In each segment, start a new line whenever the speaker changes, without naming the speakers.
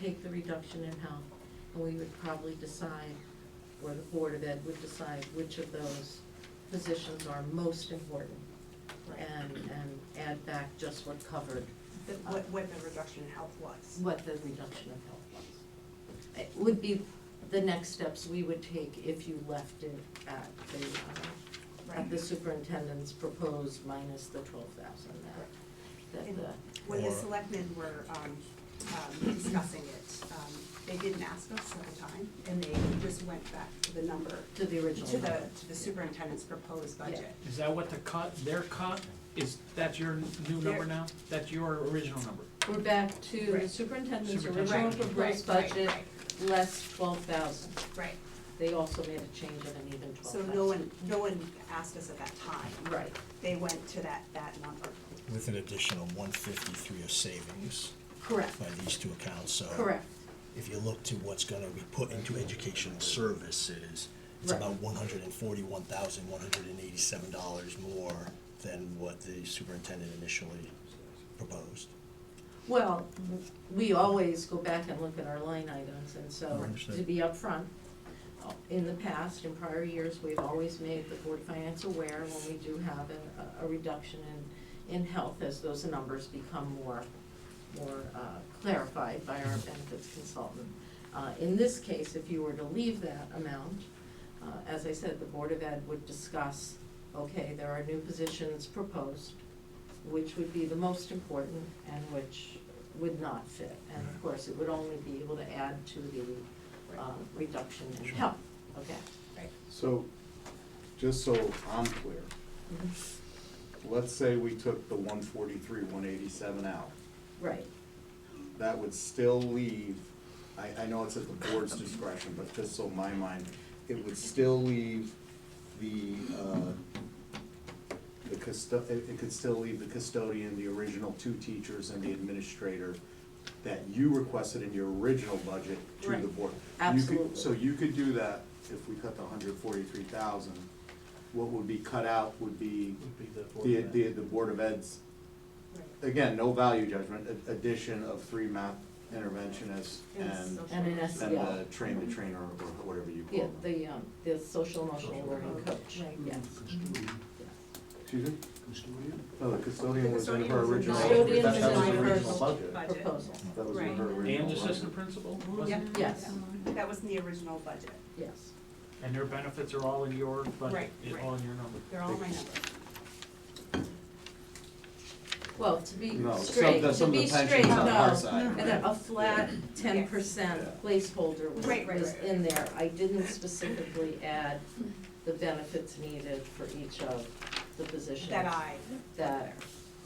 take the reduction in health, and we would probably decide, or the Board of Ed would decide which of those positions are most important, and, and add back just what covered,
The- What, what the reduction in health was.
what the reduction of health was. It would be the next steps we would take if you left it at the, uh, at the superintendent's proposed minus the twelve thousand that, that
And
the.
When the
Or-
selectmen were um, um, discussing it, um, they didn't ask us at the time, and they just went back to the number,
To the original.
to the,
number.
to the superintendent's proposed budget.
Is that what the cut, their cut, is, that's your new
Their-
number now? That's your original number?
We're back to the
Right.
superintendent's
Superintendent.
original
Right,
proposed
right, right,
budget, less twelve thousand.
Right.
They also made a change of an even twelve
So
thousand.
no one, no one asked us at that time.
Right,
They went to that, that number.
with an additional one fifty-three of savings
correct,
by these two accounts, so.
correct,
If you look to what's gonna be put into educational services, it's
Right.
about one hundred and forty-one thousand, one hundred and eighty-seven dollars more than what the superintendent initially proposed.
Well, we always go back and look at our line items, and
I
so,
understand.
to be upfront, uh, in the past, in prior years, we've always made the board finance aware when we do have a, a reduction in, in health as those numbers become more, more uh, clarified by our benefits consultant. Uh, In this case, if you were to leave that amount, uh, as I said, the Board of Ed would discuss, okay, there are new positions proposed, which would be the most important and which would not fit. And of course, it would only be able to add to the um, reduction in
Sure.
health, okay?
So, just so I'm clear, let's say we took the one forty-three, one eighty-seven out.
Right,
That would still leave, I, I know it's at the board's discretion, but just so my mind, it would still leave the, uh, the custo, it, it could still leave the custodian, the original two teachers and the administrator that you requested in your original budget to the
Right.
board. You could-
absolutely.
So you could do that if we cut the hundred forty-three thousand. What would be cut out would be the, the, the Board of Ed's, again, no value judgment, a- addition of three math interventionists
And
and,
social-
And an S,
and
yeah,
the train the trainer or whatever you
yeah,
call them.
the, um, the social emotional learning coach, yes.
Excuse me? No, the custodian was in her
Custodian was in
original,
my- Custodian
that that
was
was
in
in her
my
original
first
budget.
budget.
Proposal,
Mm-hmm.
That was in her
Right.
original.
And
budget.
assistant principal? was it?
Yeah.
yes,
That was in the original budget.
yes.
And their benefits are all in your budget,
Right,
is
right.
all in your number?
They're all my numbers.
Well, to be
No, some,
straight,
the-
to
some of
be
the
straight,
pensions on our
no,
side.
and a, a flat ten
Yeah.
percent placeholder was,
Right, right,
was
right.
in there. I didn't specifically add the benefits needed for each of the positions
That I,
that,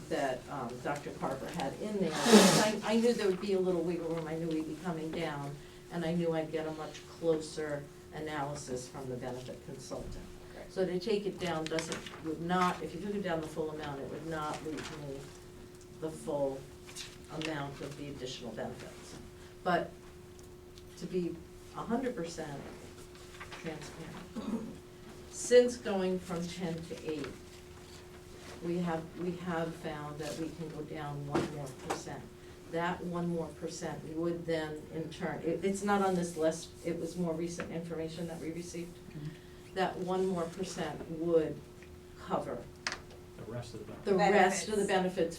that, um, Dr. Carver had in there. Because I, I knew there would be a little wiggle room, I knew we'd be coming down, and I knew I'd get a much closer analysis from the benefit consultant.
Correct.
So to take it down doesn't, would not, if you took it down the full amount, it would not leave me the full amount of the additional benefits. But to be a hundred percent transparent, since going from ten to eight, we have, we have found that we can go down one more percent. That one more percent would then in turn, it, it's not on this list, it was more recent information that we received. That one more percent would cover
The rest of the benefits?
the rest of the
Benefits.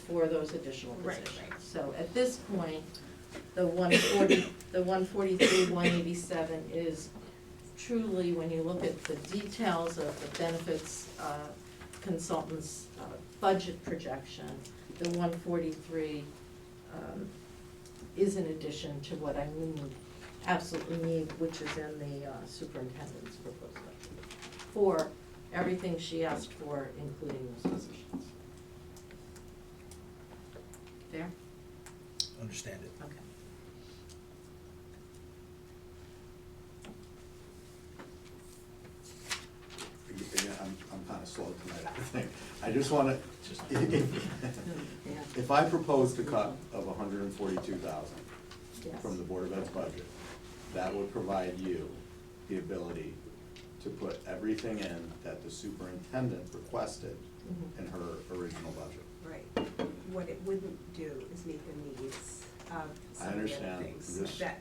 benefits for those additional
Right,
positions.
right.
So at this point, the one forty, the one forty-three, one eighty-seven is truly, when you look at the details of the benefits uh, consultant's uh, budget projection, the one forty-three um, is in addition to what I need, absolutely need, which is in the uh, superintendent's proposed budget for everything she asked for, including those positions. Fair?
Understand it.
Okay.
Again, I'm, I'm kinda slow tonight, I think. I just wanna,
Yeah,
if I proposed a cut of hundred and forty-two thousand,
yes.
from the Board of Ed's budget, that would provide you the ability to put everything in that the superintendent requested
Mhm.
in her original budget.
right. What it wouldn't do is meet the needs uh, some of the other
understand.
things
This-
that